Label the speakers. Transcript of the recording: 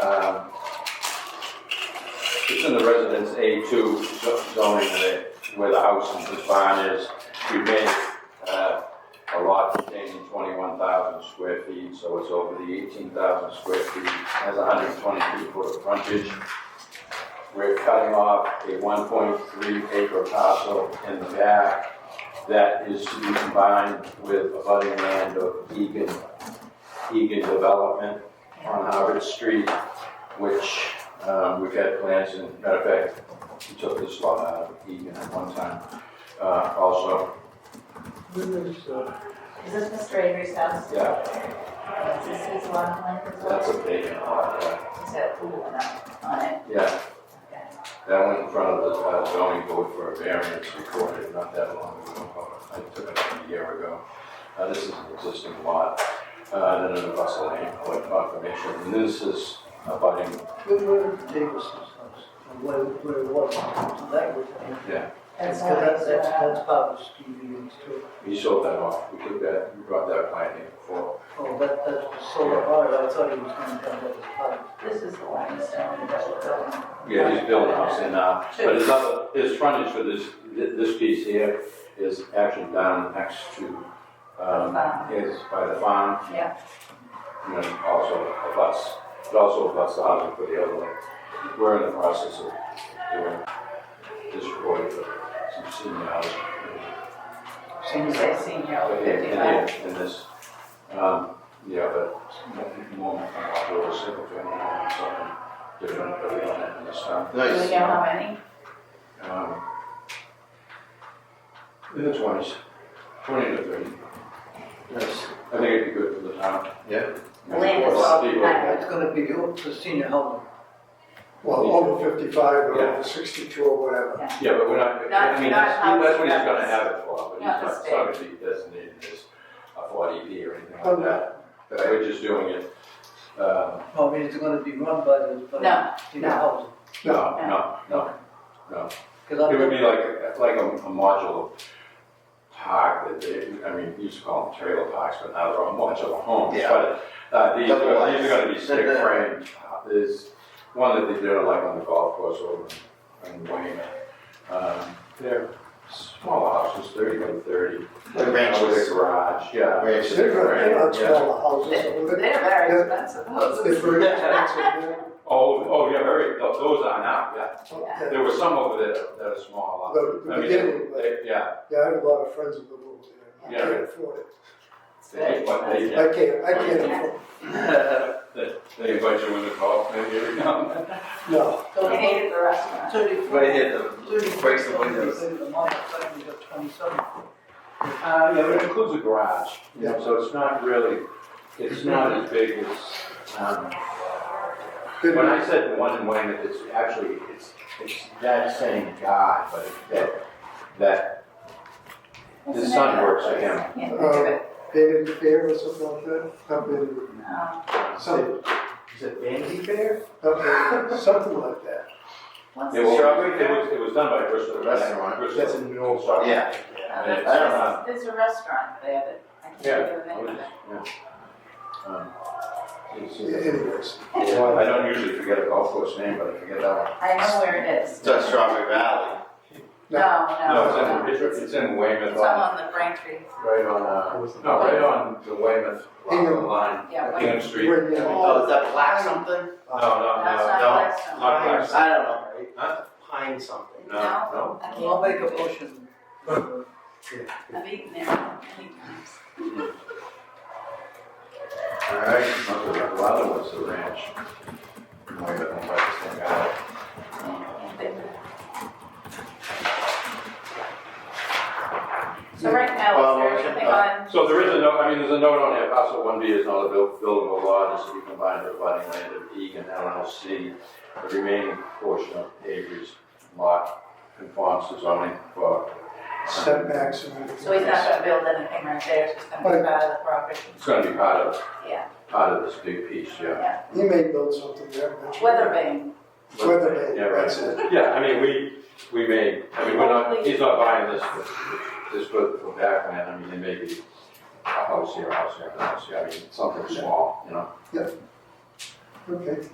Speaker 1: um, it's in the residence A2 zo- zoning where, where the house and the barn is. We made, uh, a lot containing 21,000 square feet, so it's over the 18,000 square feet, has 122 foot of frontage. We're cutting off a 1.3 acre parcel in the back that is to be combined with abutting land of Egan, Egan Development on Harvard Street, which um, we've had plans in, matter of fact, we took this lot out of Egan at one time uh, also,
Speaker 2: uh,
Speaker 3: Is this Mr. Avery's house?
Speaker 1: yeah,
Speaker 3: Is this his lot line as
Speaker 1: that's
Speaker 3: well?
Speaker 1: a vacant lot, yeah.
Speaker 3: He's got a pool and a- on it.
Speaker 1: yeah. That went in front of the uh, zoning board for a variance recorded not that long ago, I took it a year ago. Uh, This is an existing lot, uh, then in the Russell Lane, what confirmation, and this is abutting,
Speaker 2: Where, where Davis's house, and where, where it was, so that was, that's,
Speaker 1: yeah,
Speaker 3: That's
Speaker 2: that's, that's,
Speaker 3: uh,
Speaker 2: that's part of Stevie's too.
Speaker 1: we sold that off, we took that, we brought that plan in before.
Speaker 2: Oh, that, that's the solar part, I thought he was gonna have that as part of.
Speaker 3: This is the limestone that we're building.
Speaker 1: Yeah, he's building house in now, but his other, his frontage for this, thi- this piece here is actually down next to, um, is by the farm.
Speaker 3: Yeah.
Speaker 1: And then also a bus, it also abuts the housing for the other one. We're in the process of doing this for some senior housing.
Speaker 3: You say senior
Speaker 1: But
Speaker 3: over
Speaker 1: in, in here,
Speaker 3: fifty-five.
Speaker 1: in this, um, yeah, but more, more single family, home, something different, but we don't have in this town.
Speaker 3: Do we know how many?
Speaker 1: Um, In the twenties, twenty to thirty. Yes. I think it'd be good for the town.
Speaker 4: Yeah.
Speaker 1: And
Speaker 3: Land
Speaker 1: for a lot of
Speaker 3: is-
Speaker 1: people,
Speaker 3: I-
Speaker 2: It's gonna be up to senior housing.
Speaker 5: Well, over fifty-five or
Speaker 1: Yeah.
Speaker 5: over sixty-two or whatever.
Speaker 1: Yeah, but we're not,
Speaker 3: Not-
Speaker 1: I mean,
Speaker 3: not
Speaker 1: that's, that's what he's
Speaker 3: housing,
Speaker 1: gonna
Speaker 3: that's-
Speaker 1: have it for, but he's not,
Speaker 3: not the
Speaker 1: it's not gonna be designated as a forty B or anything like
Speaker 5: Okay.
Speaker 1: that. But We're just doing it, um,
Speaker 2: No, I mean, it's gonna be run by the, by
Speaker 3: No,
Speaker 2: the senior
Speaker 3: no.
Speaker 2: housing.
Speaker 1: no, no, no, no.
Speaker 2: Cause I
Speaker 1: It would
Speaker 2: don't,
Speaker 1: be like, like a a modular park that they, I mean, you used to call them trailer parks, but now they're all modular homes.
Speaker 4: Yeah.
Speaker 1: But, uh, these
Speaker 4: Double
Speaker 1: are,
Speaker 4: wide.
Speaker 1: these are gonna be stick framed, Uh, there's one that they did like on the golf course over in in Wayne. Um, They're small houses, thirty by thirty.
Speaker 4: Like
Speaker 1: With
Speaker 4: ranches.
Speaker 1: a garage, yeah.
Speaker 4: Ranches.
Speaker 5: They're gonna, they're not
Speaker 1: Yeah.
Speaker 5: smaller houses.
Speaker 3: They're
Speaker 5: They're-
Speaker 3: very expensive
Speaker 5: They're
Speaker 3: houses.
Speaker 5: very expensive.
Speaker 1: Oh, oh, yeah, very, tho- those are now, yeah.
Speaker 5: yeah.
Speaker 1: There were some over there that are small.
Speaker 5: The- the
Speaker 1: I mean,
Speaker 5: beginning, but-
Speaker 1: they- Yeah,
Speaker 5: Yeah, I have a lot of friends in the world, and I
Speaker 1: Yeah.
Speaker 5: can't afford it.
Speaker 3: It's very
Speaker 1: they, but they,
Speaker 3: expensive.
Speaker 5: I can't, I can't afford it.
Speaker 1: They they invite you in the call, maybe every now and then.
Speaker 5: No,
Speaker 3: We hated the restaurant.
Speaker 2: thirty-four.
Speaker 4: Right here, the-
Speaker 2: Thirty-four.
Speaker 4: breaks the windows.
Speaker 2: The month, I think we got twenty-seven.
Speaker 1: Uh, yeah, but it includes a garage, you know,
Speaker 5: Yeah.
Speaker 1: so it's not really, it's not as big as, um,
Speaker 5: good,
Speaker 1: when I said the one in Wayne, it's actually, it's, it's that same guy, but that, that, His son works for him.
Speaker 3: Can't think of it.
Speaker 5: David Fair or something like that, up in,
Speaker 3: Um,
Speaker 5: some,
Speaker 1: is it Vanity Fair?
Speaker 5: up in, something like that.
Speaker 3: What's
Speaker 1: It
Speaker 3: the-
Speaker 1: was, it was, it was done by Bristol.
Speaker 4: Restaurant.
Speaker 1: Bristol-
Speaker 5: That's in New Orleans.
Speaker 1: Sorry.
Speaker 4: Yeah.
Speaker 3: uh,
Speaker 1: I don't
Speaker 3: there's- There's a restaurant there, but I can't
Speaker 1: Yeah.
Speaker 3: think of the name of it.
Speaker 1: Um, it's-
Speaker 5: Anyways,
Speaker 1: yeah, I don't usually forget a golf course name, but I forget that one.
Speaker 3: I know where it is.
Speaker 4: It's on Strawberry Valley.
Speaker 3: No,
Speaker 5: No.
Speaker 1: No,
Speaker 3: no, no.
Speaker 1: it's in, it's- it's in Weymouth.
Speaker 3: It's all on the Braintree,
Speaker 1: Right on, uh, no, right on the Weymouth
Speaker 5: Hingham.
Speaker 1: line,
Speaker 3: yeah. Wayne.
Speaker 1: Hingham Street. No,
Speaker 5: when, you know,
Speaker 4: Oh, is that black something?
Speaker 1: no, no,
Speaker 3: That's
Speaker 4: no.
Speaker 3: not Blackstone.
Speaker 1: Not black.
Speaker 4: I don't know.
Speaker 1: Huh?
Speaker 4: Pine something.
Speaker 1: no, no.
Speaker 3: I
Speaker 2: I'll
Speaker 3: can't,
Speaker 2: make a motion.
Speaker 3: I've eaten there many times.
Speaker 1: All right, okay, the other one's the ranch. Oh, Weymouth, I'm like, this thing out.
Speaker 3: So right now,
Speaker 4: Well,
Speaker 3: is there
Speaker 4: motion,
Speaker 3: anything
Speaker 4: uh,
Speaker 3: on,
Speaker 1: So there is a note, I mean, there's a note on there, parcel one B is not a buil- buildable lot, it's to be combined with abutting land of Egan LLC. The remaining portion of Avery's lot conforms to zoning for
Speaker 5: setbacks and everything.
Speaker 3: so he's not gonna build anything right there, it's just gonna be out of the property,
Speaker 1: It's gonna be part of,
Speaker 3: yeah,
Speaker 1: part of this big piece, yeah.
Speaker 5: He may build something there eventually.
Speaker 3: weather vane.
Speaker 5: Weather vane,
Speaker 1: Yeah, right.
Speaker 5: that's it.
Speaker 1: Yeah, I mean, we, we may, I mean, we're not, he's not buying this, for- this for, for backland, I mean, there may be a house here, a house here, a house here, I mean, something small, you know?
Speaker 5: Okay.